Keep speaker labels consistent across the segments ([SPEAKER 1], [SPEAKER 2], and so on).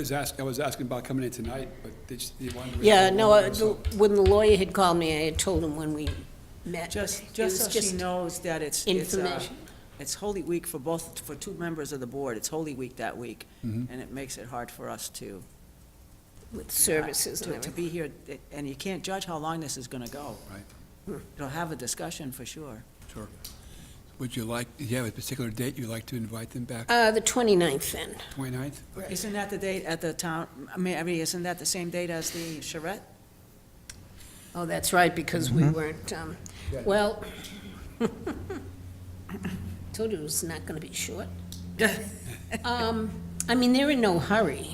[SPEAKER 1] was asking, I was asking about coming in tonight, but they just, they wanted. to-
[SPEAKER 2] Yeah, no, uh, the- when the lawyer had called me, I had told him when we met.
[SPEAKER 3] Just,
[SPEAKER 2] It was
[SPEAKER 3] just so she knows that it's, it's, uh,
[SPEAKER 2] Information.
[SPEAKER 3] it's Holy Week for both, for two members of the board, it's Holy Week that week,
[SPEAKER 1] Mm-hmm.
[SPEAKER 3] and it makes it hard for us to. uh,
[SPEAKER 2] With services and
[SPEAKER 3] to- To
[SPEAKER 2] everything.
[SPEAKER 3] be here, it- and you can't judge how long this is gonna go.
[SPEAKER 1] Right.
[SPEAKER 3] It'll have a discussion for sure.
[SPEAKER 1] Sure. Would you like, do you have a particular date you'd like to invite them back,
[SPEAKER 2] Uh, the 29th then.
[SPEAKER 1] 29th?
[SPEAKER 3] Isn't that the date at the town, I mean, I mean, isn't that the same date as the charrette?
[SPEAKER 2] Oh, that's right, because we weren't, um, well, told you it was not gonna be short. Um, I mean, they're in no hurry,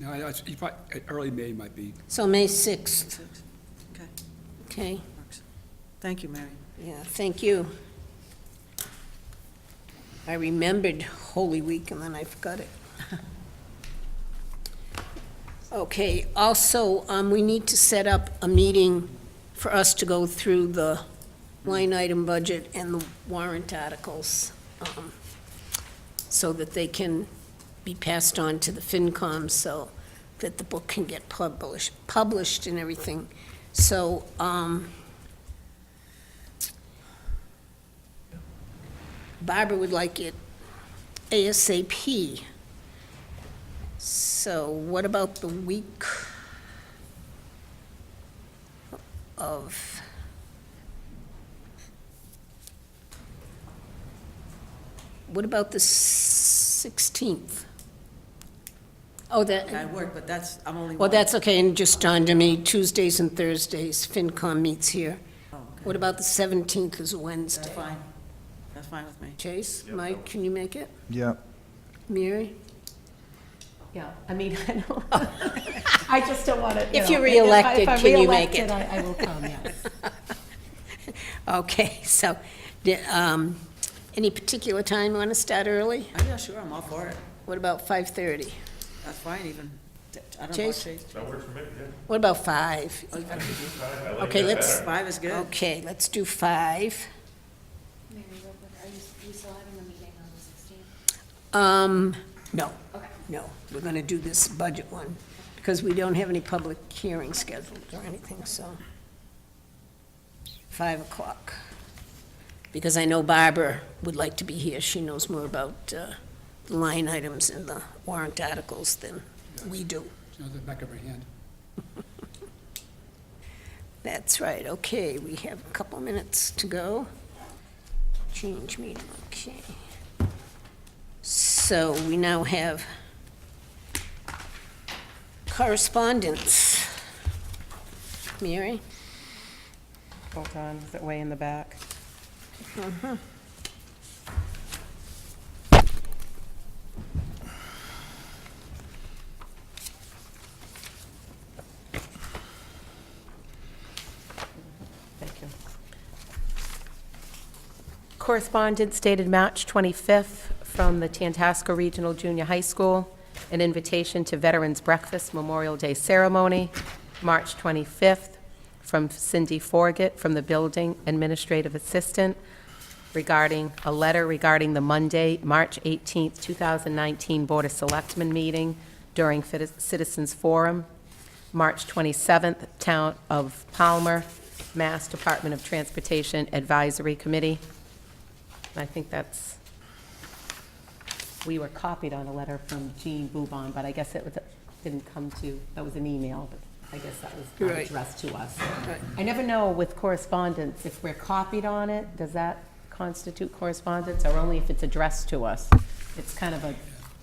[SPEAKER 1] No, I- I- you probably, uh, early May might be,
[SPEAKER 2] so May 6th,
[SPEAKER 3] Okay,
[SPEAKER 2] okay?
[SPEAKER 3] works. Thank you, Mary.
[SPEAKER 2] Yeah, thank you. I remembered Holy Week and then I forgot it. Okay, also, um, we need to set up a meeting for us to go through the line item budget and the warrant articles, um, so that they can be passed on to the FinCom, so that the book can get published, published and everything. So, um, Barbara would like it ASAP. So what about the week of? What about the 16th? Oh,
[SPEAKER 3] I
[SPEAKER 2] that,
[SPEAKER 3] work, but that's, I'm only.
[SPEAKER 2] well,
[SPEAKER 3] one.
[SPEAKER 2] that's okay, and just dawned on me, Tuesdays and Thursdays, FinCom meets here.
[SPEAKER 3] Oh, okay.
[SPEAKER 2] What about the 17th is
[SPEAKER 3] That's
[SPEAKER 2] Wednesday?
[SPEAKER 3] fine. That's fine with me.
[SPEAKER 2] Chase, Mike, can you make it?
[SPEAKER 4] Yeah,
[SPEAKER 2] Mary?
[SPEAKER 5] Yeah, I mean, I don't, I just don't want to,
[SPEAKER 2] If you're reelected, can you make it?
[SPEAKER 5] If I'm reelected, I I will come, yes.
[SPEAKER 2] Okay, so, di- um, any particular time you want to start early?
[SPEAKER 3] Oh, yeah, sure, I'm all for it.
[SPEAKER 2] What about 5:30?
[SPEAKER 3] That's fine even. I don't know,
[SPEAKER 2] Chase?
[SPEAKER 3] Chase.
[SPEAKER 6] That works for me,
[SPEAKER 2] What about 5?
[SPEAKER 3] Oh, you gotta do
[SPEAKER 6] yeah. I like
[SPEAKER 2] Okay,
[SPEAKER 6] that
[SPEAKER 2] let's,
[SPEAKER 6] better.
[SPEAKER 3] Five is good.
[SPEAKER 2] okay, let's do 5.
[SPEAKER 7] Mary, real quick, are you, you still having a meeting on the sixteenth?
[SPEAKER 2] Um, no,
[SPEAKER 7] Okay.
[SPEAKER 2] no, we're going to do this budget one, because we don't have any public hearing scheduled or anything, so. 5 o'clock. Because I know Barbara would like to be here. She knows more about uh, the line items and the warrant articles than we do.
[SPEAKER 1] it's on the back of her hand.
[SPEAKER 2] That's right, okay, we have a couple minutes to go. Change meeting, okay. So we now have correspondence. Mary?
[SPEAKER 8] Hold on, is it way in the back? Thank you.
[SPEAKER 5] Correspondence dated March 25th from the Tantasco Regional Junior High School, an invitation to Veterans Breakfast Memorial Day Ceremony, March 25th, from Cindy Forget, from the Building Administrative Assistant, regarding, a letter regarding the Monday, March 18th, 2019 Board of Selectmen meeting during Fit- Citizens Forum, March 27th, Town of Palmer, Mass Department of Transportation Advisory Committee, and I think that's, we were copied on a letter from Jean Boubon, but I guess it was, didn't come to, that was an email, but I guess that was not
[SPEAKER 2] Right.
[SPEAKER 5] addressed to us. I never know with correspondence, if we're copied on it, does that constitute correspondence, or only if it's addressed to us? It's kind of a.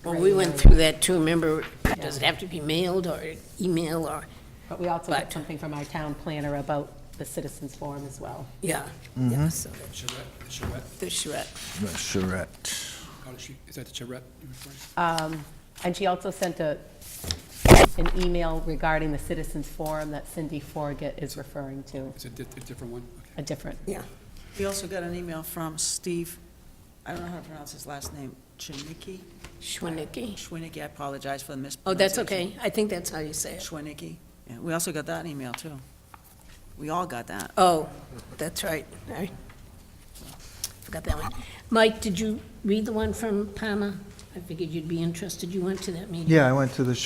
[SPEAKER 2] Well, we went through that too, remember, does it have to be mailed or email or,
[SPEAKER 5] But we also got
[SPEAKER 2] but-
[SPEAKER 5] something from our town planner about the citizens forum as well.
[SPEAKER 2] yeah. yeah, so
[SPEAKER 1] Charrette, the charrette,
[SPEAKER 2] The charrette.
[SPEAKER 4] the charrette.
[SPEAKER 1] how does she, is that the charrette you're referring to?
[SPEAKER 5] Um, And she also sent a, an email regarding the citizens forum that Cindy Forget is referring to,
[SPEAKER 1] Is it di- a different one? Okay.
[SPEAKER 5] a different.
[SPEAKER 3] We also got an email from Steve, I don't know how to pronounce his last name, Chinicki?
[SPEAKER 2] Schwinnicky.
[SPEAKER 3] Schwinnicki, I apologize for the mispronunciation.
[SPEAKER 2] Oh, that's okay, I think that's how you say it.
[SPEAKER 3] Schwinnicki. Yeah, we also got that email, too. We all got that.
[SPEAKER 2] Oh, that's right, I forgot that one. Mike, did you read the one from Palmer? I figured you'd be interested, you went to that meeting.
[SPEAKER 4] Yeah, I went to the